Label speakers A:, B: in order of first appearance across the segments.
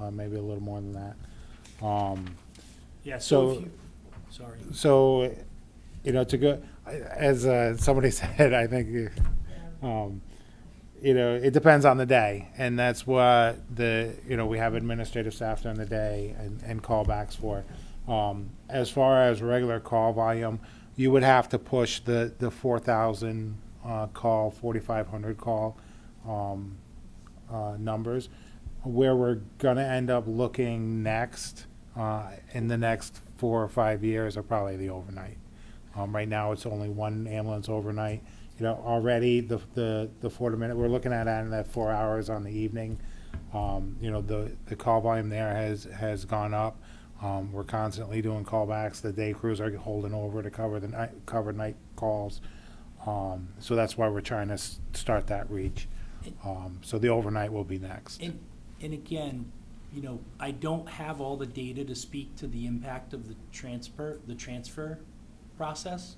A: uh, maybe a little more than that. Um,
B: Yeah, so if
A: So-
B: you, sorry.
A: so, you know, to go, as uh, somebody said, I think, um, you know, it depends on the day, and that's what the, you know, we have administrative staff during the day and, and callbacks for. Um, as far as regular call volume, you would have to push the, the four thousand, uh, call, forty-five hundred call, um, uh, numbers. Where we're gonna end up looking next, uh, in the next four or five years are probably the overnight. Um, right now, it's only one ambulance overnight. You know, already the, the, the four to minute, we're looking at adding that four hours on the evening. Um, you know, the, the call volume there has, has gone up. Um, we're constantly doing callbacks. The day crews are holding over to cover the night, cover night calls. Um, so that's why we're trying to s- start that reach. Um, so the overnight will be next.
B: And, and again, you know, I don't have all the data to speak to the impact of the transfer, the transfer process.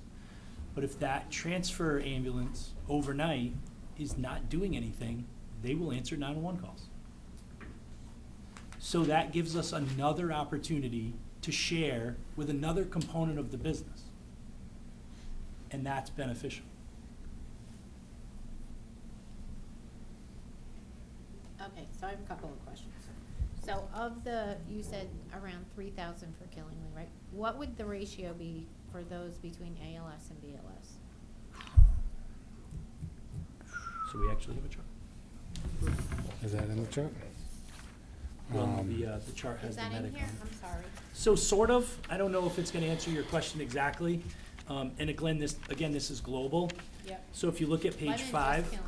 B: But if that transfer ambulance overnight is not doing anything, they will answer nine-one-one calls. So that gives us another opportunity to share with another component of the business. And that's beneficial.
C: Okay, so I have a couple of questions. So of the, you said around three thousand for Killingly, right? What would the ratio be for those between ALS and BLS?
B: So we actually have a chart.
A: Is that in the chart?
B: Well,
A: Um,
B: the, uh, the chart has
C: Is
B: the
C: that in
B: medic on
C: here?
B: it.
C: I'm sorry.
B: So sort of, I don't know if it's gonna answer your question exactly. Um, and Glenn, this, again, this is global.
C: Yep.
B: So if you look at
C: Why
B: page
C: didn't just
B: five,
C: Killingly?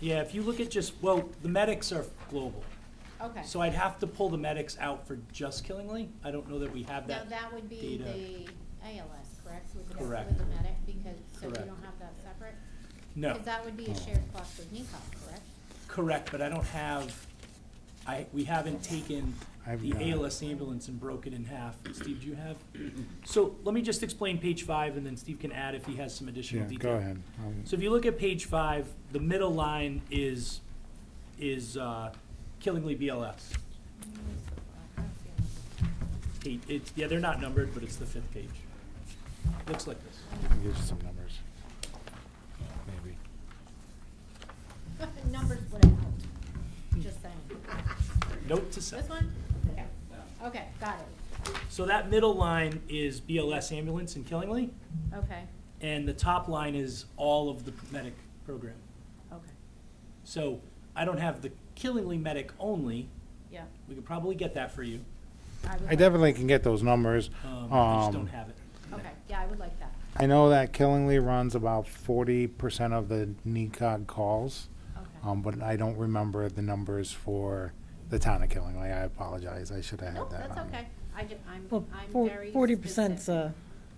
B: yeah, if you look at just, well, the medics are global.
C: Okay.
B: So I'd have to pull the medics out for just Killingly. I don't know that we have
C: Now,
B: that.
C: that would be
B: data.
C: the ALS, correct? With the-
B: Correct.
C: With the medic, because, so you
B: Correct.
C: don't have that separate?
B: No, Oh.
C: Because that would be a shared cost with NECOG, correct?
B: correct, but I don't have, I, we haven't taken
A: I've
B: the
A: got it.
B: ALS ambulance and broke it in half. Steve, do you have? So let me just explain page five and then Steve can add if he has some additional
A: Yeah,
B: detail.
A: go ahead. Um,
B: So if you look at page five, the middle line is, is uh, Killingly BLS. Eight- It's, yeah, they're not numbered, but it's the fifth page. Looks like this.
A: I'll give you some numbers. Maybe.
C: Numbers would have helped, just saying.
B: Note to self.
C: This one? Yeah. Okay, got it.
B: So that middle line is BLS ambulance in Killingly,
C: Okay,
B: and the top line is all of the medic program.
C: okay,
B: So I don't have the Killingly medic only.
C: yeah.
B: We could probably get that for you.
C: would
A: I
C: like-
A: definitely can get those numbers.
B: Um, I just
A: Um,
B: don't have it.
C: Okay, yeah, I would like that.
A: I know that Killingly runs about forty percent of the NECOG calls,
C: Okay.
A: um, but I don't remember the numbers for the town of Killingly. I apologize. I should have
C: No,
A: had that.
C: that's
A: on me.
C: okay. I ju, I'm,
D: Well,
C: I'm very.
D: forty uh, percent's
C: specific.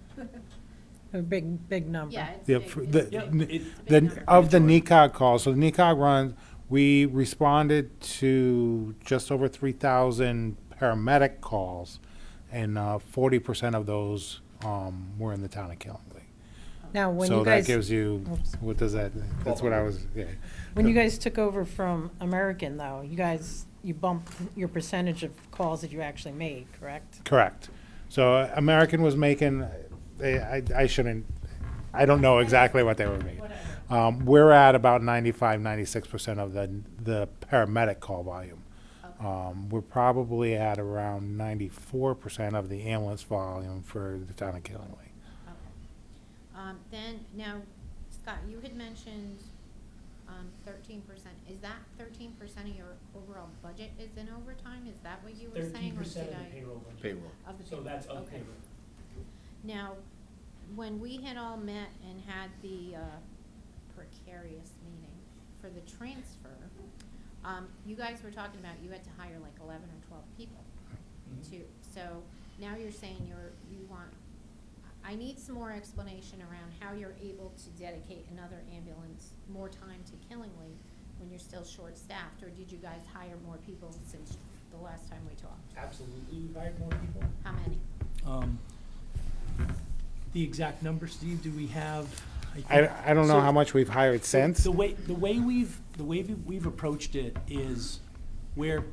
D: a, a big, big number.
C: Yeah, it's
A: Yeah,
C: big,
A: for
C: it's
A: the-
C: big.
B: Yeah,
A: n-
B: it,
A: The, of the NECOG calls, so the NECOG runs, we responded to just over three thousand paramedic calls, and, uh, forty percent of those, um, were in the town of Killingly.
D: Now, when
A: So
D: you
A: that
D: guys,
A: gives you,
D: Oops.
A: what does that, that's what I was, yeah.
D: when you guys took over from American though, you guys, you bumped your percentage of calls that you actually made, correct?
A: Correct. So uh, American was making, they, I, I shouldn't, I don't know exactly what they were making. Um, we're at about 95, 96% of the, the paramedic call volume.
C: Okay.
A: Um, we're probably at around 94% of the ambulance volume for the town of Killingly.
C: Okay. Um, then, now, Scott, you had mentioned, um, thirteen percent. Is that thirteen percent of your overall budget is in overtime? Is that what you were
B: Thirteen
C: saying, or
B: percent
C: did
B: of the
C: I?
B: payroll budget.
E: Payroll.
C: Of the
B: So
C: payroll,
B: that's of
C: okay.
B: payroll.
C: Now, when we had all met and had the uh, precarious meeting for the transfer, um, you guys were talking about you had to hire like eleven or twelve people
B: Mhm.
C: to, so now you're saying you're, you want, I I need some more explanation around how you're able to dedicate another ambulance more time to Killingly when you're still short-staffed, or did you guys hire more people since the last time we talked?
B: Absolutely, we hired more people.
C: How many?
B: Um, The exact number, Steve, do we have? think-
A: I, I don't know
B: So-
A: how much we've hired since.
B: The way, the way we've, the way we've- we've approached it is where